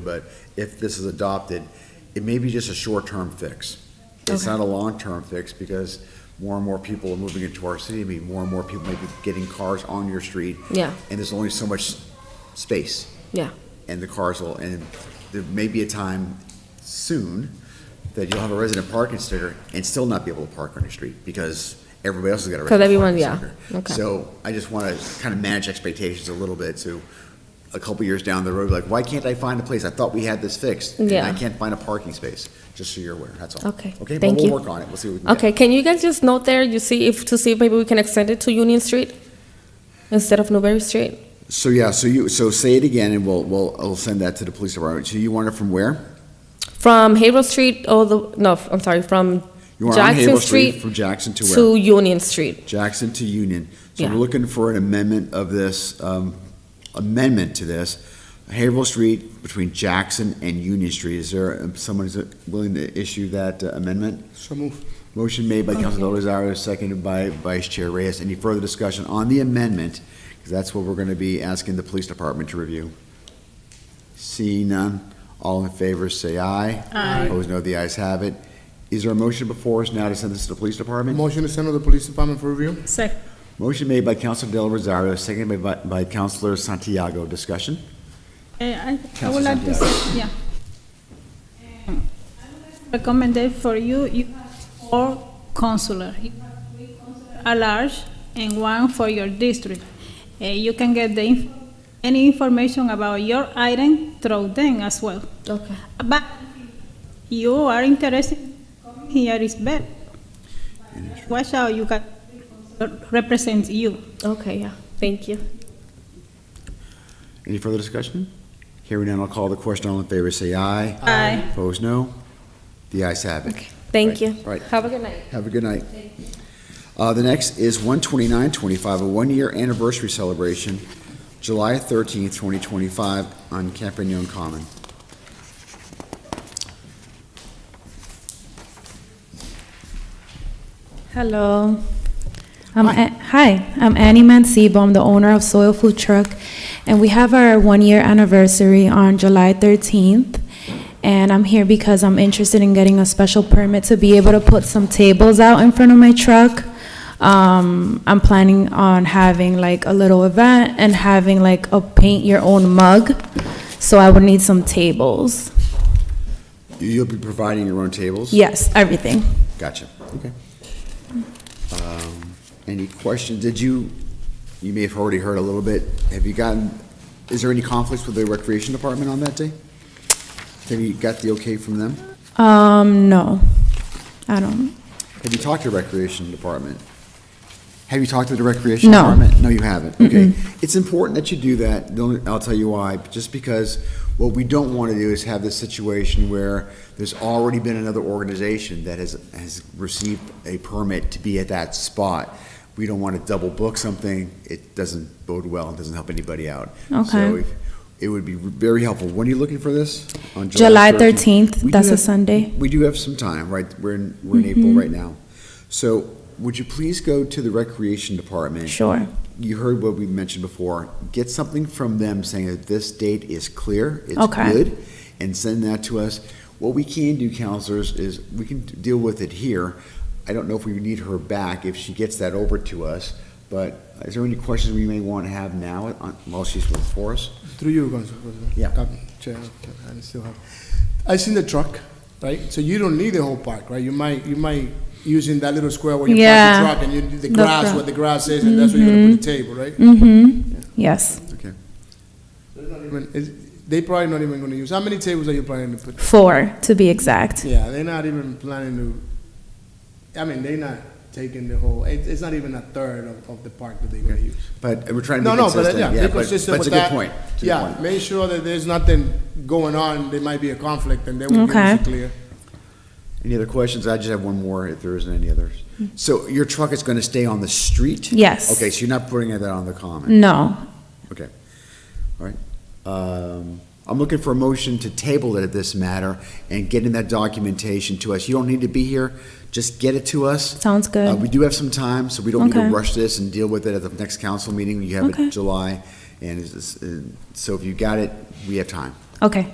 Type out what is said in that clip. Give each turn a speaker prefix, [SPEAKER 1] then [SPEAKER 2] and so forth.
[SPEAKER 1] but if this is adopted, it may be just a short-term fix. It's
[SPEAKER 2] Okay.
[SPEAKER 1] not a long-term fix, because more and more people are moving into our city, I mean, more and more people may be getting cars on your street,
[SPEAKER 2] Yeah,
[SPEAKER 1] and there's only so much space.
[SPEAKER 2] Yeah.
[SPEAKER 1] And the cars will, and there may be a time soon that you'll have a resident parking sticker and still not be able to park on your street, because everybody else has got a
[SPEAKER 2] 'Cause
[SPEAKER 1] resident parking
[SPEAKER 2] everyone- yeah,
[SPEAKER 1] sticker.
[SPEAKER 2] okay.
[SPEAKER 1] So I just wanna kinda manage expectations a little bit, so a couple years down the road, like, why can't I find a place? I thought we had this fixed. and I
[SPEAKER 2] Yeah.
[SPEAKER 1] can't find a parking space, just so you're aware, that's all.
[SPEAKER 2] Okay,
[SPEAKER 1] Okay, but
[SPEAKER 2] thank
[SPEAKER 1] we'll
[SPEAKER 2] you.
[SPEAKER 1] work on it, we'll see what we can get.
[SPEAKER 2] Okay, can you guys just note there, you see if, to see if maybe we can extend it to Union Street instead of Newberry Street?
[SPEAKER 1] So, yeah, so you, so say it again, and we'll, we'll, I'll send that to the police department. So you want it from where?
[SPEAKER 2] From Haverhill Street, all the, no, I'm sorry, from
[SPEAKER 1] You want it on
[SPEAKER 2] Jackson
[SPEAKER 1] Havel Street
[SPEAKER 2] Street
[SPEAKER 1] from Jackson to where?
[SPEAKER 2] to Union Street.
[SPEAKER 1] Jackson to Union. So we're
[SPEAKER 2] Yeah.
[SPEAKER 1] looking for an amendment of this, um, amendment to this. Haverhill Street between Jackson and Union Street. Is there um, someone who's willing to issue that uh, amendment?
[SPEAKER 3] So move.
[SPEAKER 1] Motion made by Councilman Olizario, seconded by Vice Chair Reyes. Any further discussion on the amendment? Because that's what we're going to be asking the police department to review. Seeing none, all in favor, say aye. Aye. Opposed, no. The ayes have it. Is there a motion before us now to send this to the police department?
[SPEAKER 3] Motion to send to the police department for review?
[SPEAKER 4] Second.
[SPEAKER 1] Motion made by Counselor Del Rosario, seconded by, by Counselor Santiago. Discussion?
[SPEAKER 4] Eh, I I
[SPEAKER 1] Councilor
[SPEAKER 4] would like to
[SPEAKER 1] Santiago.
[SPEAKER 4] say, yeah. Recommended for you, you or consular. A large and one for your district. Uh, You can get the, inf- any information about your item through them as well.
[SPEAKER 2] Okay.
[SPEAKER 4] But you are interested, here is better. Watch out, you can, represent you.
[SPEAKER 2] Okay, yeah, thank you.
[SPEAKER 1] Any further discussion? Hearing none, I'll call the question. All in favor, say aye.
[SPEAKER 4] Aye.
[SPEAKER 1] Opposed, no. The ayes have it.
[SPEAKER 2] Thank you.
[SPEAKER 1] Right, right.
[SPEAKER 2] Have a good night.
[SPEAKER 1] Have a good night. Uh, the next is one twenty-nine twenty-five, a one-year anniversary celebration, July thirteenth, twenty twenty-five, on Campagnon Common.
[SPEAKER 5] Hello. I'm A- hi, I'm Annie Mancebo. I'm the owner of Soil Food Truck, and we have our one year anniversary on July 13th. And I'm here because I'm interested in getting a special permit to be able to put some tables out in front of my truck. Um, I'm planning on having like a little event and having like a paint your own mug. So I would need some tables.
[SPEAKER 1] You- You'll be providing your own tables?
[SPEAKER 5] Yes, everything.
[SPEAKER 1] Gotcha, okay. Um, Any questions? Did you, you may have already heard a little bit, have you gotten, is there any conflicts with the recreation department on that day? Have you got the okay from them?
[SPEAKER 5] Um, no, I don't.
[SPEAKER 1] Have you talked to the recreation department? Have you talked to the recreation
[SPEAKER 5] No.
[SPEAKER 1] department? No, you haven't, okay. It's important that you do that, The only- I'll tell you why, just because what we don't want to do is have this situation where there's already been another organization that has, has received a permit to be at that spot. We don't want to double book something, it doesn't bode well, it doesn't help anybody out. So
[SPEAKER 5] Okay.
[SPEAKER 1] if- It would be very helpful, when are you looking for this? On
[SPEAKER 5] July
[SPEAKER 1] We
[SPEAKER 5] 13th,
[SPEAKER 1] do
[SPEAKER 5] that's a
[SPEAKER 1] have-
[SPEAKER 5] Sunday. Mm-hmm.
[SPEAKER 1] we do have some time, right? We're in, we're in April right now. So would you please go to the recreation department?
[SPEAKER 5] Sure.
[SPEAKER 1] You heard what we mentioned before. Get something from them saying that this date is clear, it's
[SPEAKER 5] Okay.
[SPEAKER 1] good, and send that to us. What we can do, counselors, is we can deal with it here. I don't know if we need her back if she gets that over to us, but is there any questions we may want to have now on- while she's before us?
[SPEAKER 3] Through you, Council President.
[SPEAKER 1] Yeah.
[SPEAKER 3] Um, Chair, I still have. I seen the truck, right? So you don't need the whole park, right? You might, you might using that little square where you park
[SPEAKER 5] Yeah.
[SPEAKER 3] the truck and you do the
[SPEAKER 5] The
[SPEAKER 3] grass,
[SPEAKER 5] gra-
[SPEAKER 3] where the grass is, and that's where you're gonna put the table, right?
[SPEAKER 5] Mm-hmm. Yes.
[SPEAKER 1] Okay.
[SPEAKER 3] There's not even- is- They probably not even gonna use, how many tables are you planning to put?
[SPEAKER 5] Four, to be exact.
[SPEAKER 3] Yeah, they're not even planning to, I mean, they're not taking the whole, it, it's not even a third of, of the park that they're gonna use.
[SPEAKER 1] But we're trying to
[SPEAKER 3] No,
[SPEAKER 1] be
[SPEAKER 3] no, but,
[SPEAKER 1] consistent.
[SPEAKER 3] uh, yeah, be consistent
[SPEAKER 1] But it's
[SPEAKER 3] with
[SPEAKER 1] a good
[SPEAKER 3] that.
[SPEAKER 1] point. It's a good
[SPEAKER 3] Yeah,
[SPEAKER 1] point.
[SPEAKER 3] make sure that there's nothing going on, there might be a conflict, and they will give
[SPEAKER 5] Okay.
[SPEAKER 3] us a clear.
[SPEAKER 1] Any other questions? I just have one more, if there isn't any others. So your truck is gonna stay on the street?
[SPEAKER 5] Yes.
[SPEAKER 1] Okay, so you're not putting that on the common?
[SPEAKER 5] No.
[SPEAKER 1] Okay, all right.
[SPEAKER 5] Mm.
[SPEAKER 1] Um, I'm looking for a motion to table it at this matter and getting that documentation to us. You don't need to be here, just get it to us.
[SPEAKER 5] Sounds
[SPEAKER 1] Uh, We
[SPEAKER 5] good.
[SPEAKER 1] do have some time, so we don't need to
[SPEAKER 5] Okay.
[SPEAKER 1] rush this and deal with it at the next council meeting. You have
[SPEAKER 5] Okay.
[SPEAKER 1] it July, and it's- it's- and so if you got it, we have time.
[SPEAKER 5] Okay.